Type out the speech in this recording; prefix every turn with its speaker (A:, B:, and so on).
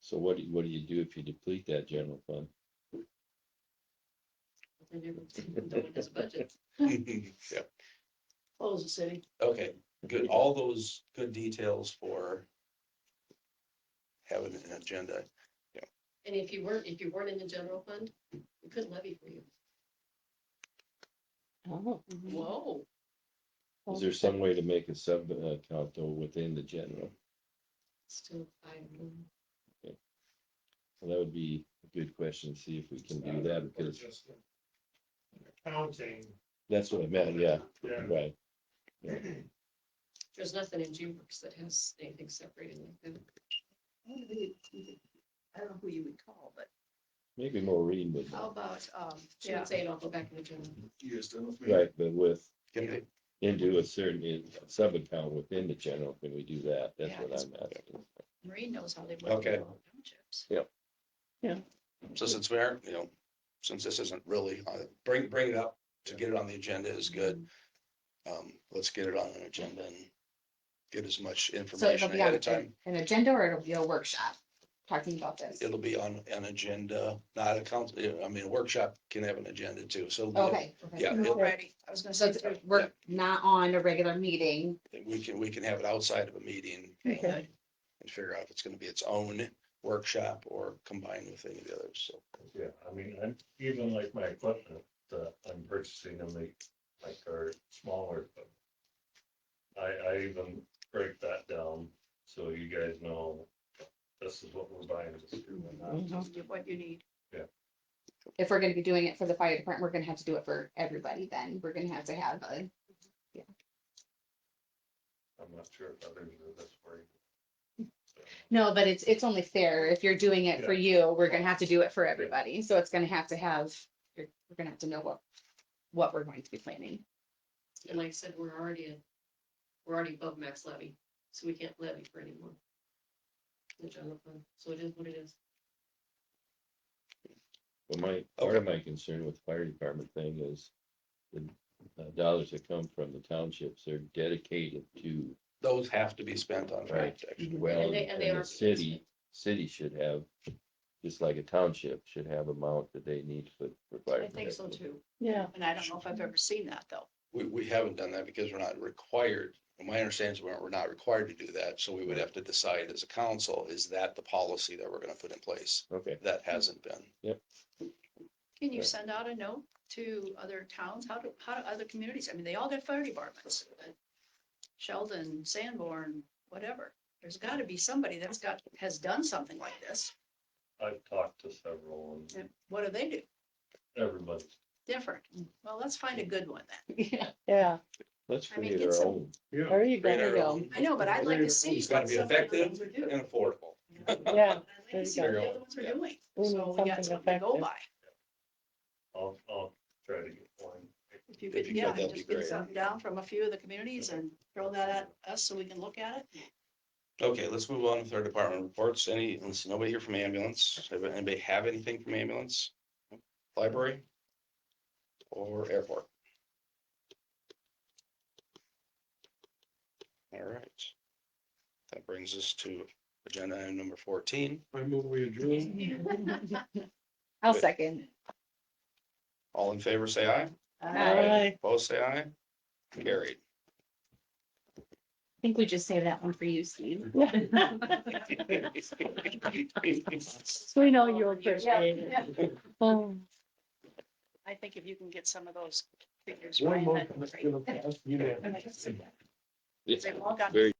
A: So what do, you- what do you do if you deplete that general fund?
B: Then everything done in his budget.
C: Yeah.
B: Close the city.
C: Okay, good. All those good details for having an agenda.
B: And if you weren't, if you weren't in the general fund, we couldn't levy for you.
D: Oh.
B: Whoa.
A: Is there some way to make a sub uh, account though within the general?
B: Still five. million.
A: Well, that would be a good question, see if we can do that,
E: Or
A: because
E: just an Accounting.
A: that's what I meant, yeah,
E: Yeah.
A: right.
B: There's nothing in G Works that has anything separated like that.
F: I don't know who you- you could- I don't know who you would call, but
A: Maybe Maureen would,
F: how about, um,
B: She would say it all go back in the general.
A: right, but with,
C: Get it?
A: into a certain uh, sub account within the general, can we do that? That's
F: Yeah,
A: what
F: that's-
A: I'm asking.
F: Marie knows how they work.
C: Okay.
F: in all townships.
C: So since we're, you know, since this isn't really, on- bring, bring it up to get it on the agenda is good. Um, let's get it on an agenda and get as much
D: So it'll
C: information
D: be on
C: ahead of
D: a-
C: time.
D: an agenda or it'll be a workshop talking about this?
C: It'll be on an agenda, not a council, I mean, a workshop can have an agenda too, so. it'll be-
D: Okay. okay.
C: Yeah, it-
F: Alrighty, I was gonna
D: So
F: say.
D: it's- we're not on a regular meeting.
C: we can, we can have it outside of a meeting
F: Okay.
C: and figure out if it's gonna be its own workshop or combined with any of the others, so.
G: Yeah, I mean, I'm, even like my equipment, that I'm purchasing them, like, like our smaller. equipment. I, I even break that down, so you guys know, this is what we're buying. this year and that.
F: Get What you need.
D: If we're gonna be doing it for the fire department, we're gonna have to do it for everybody then. We're gonna have to have a,
G: I'm not sure if others are this worried. So,
D: no, but it's, it's only fair. If you're doing it for you, we're gonna have to do it for everybody. So it's gonna have to have, you're, we're gonna have to know what, what we're going to be planning.
B: And like I said, we're already in, we're already above max levy, so we can't levy for anymore. The general fund, so it is what it is.
A: But my, part of my concern with fire department thing is the uh, dollars that come from the townships, they're dedicated to,
C: Those have to be spent on fire
A: Right.
C: protection.
A: well,
B: And they- and
A: and
B: they are-
A: the city, city should have, just like a township should have amount that they need for, for fire.
B: I think so
A: protection.
B: too.
F: Yeah. And I don't know if I've ever seen that though.
C: We, we haven't done that because we're not required, and my understanding is we're, we're not required to do that, so we would have to decide as a council, is that the policy that we're gonna put in place?
A: Okay,
C: That hasn't been.
F: Can you
A: Right.
F: send out a note to other towns? How do, how do other communities? I mean, they all got fire departments. but Sheldon, Sanborn, whatever. There's gotta be somebody that's got, has done something like this.
G: I've talked to several and
F: And what do they do?
G: everybody,
F: Different. Well, let's find a good one then.
D: Yeah.
H: Yeah,
A: let's
F: I mean,
A: create our
F: it's a-
A: own.
H: there you
C: Create
H: go.
C: our
D: go.
C: own.
F: I know, but I'd like to see.
C: It's gotta
F: what
C: be
F: some of the other
C: effective
F: ones would do.
C: and affordable.
H: Yeah,
F: I'd like to see what the other ones are doing.
H: We need
F: So we got
H: something
F: something to go
H: effective.
F: by.
G: I'll, I'll try to get one.
F: If you could,
C: you could,
F: yeah,
C: that'd be
F: just get
C: great.
F: something down from a few of the communities and throw that at us so we can look at it.
C: Okay, let's move on with our department reports. Any, let's, see, nobody here from ambulance. Have- Anybody have anything from ambulance? Library? Or airport? All right. That brings us to agenda item number fourteen.
E: I move we adjourn.
D: I'll second.
C: All in favor, say aye.
H: Aye.
C: Opposed, say aye. Carried.
D: I think we just save that one for you, Steve.
H: So we know you appreciate it.
F: Yeah.
H: Boom.
F: I think if you can get some of those figures.
E: One
F: Brian,
E: more
F: that'd be
E: that's
F: great.
E: gonna pass unanimously.
F: They all got
A: Very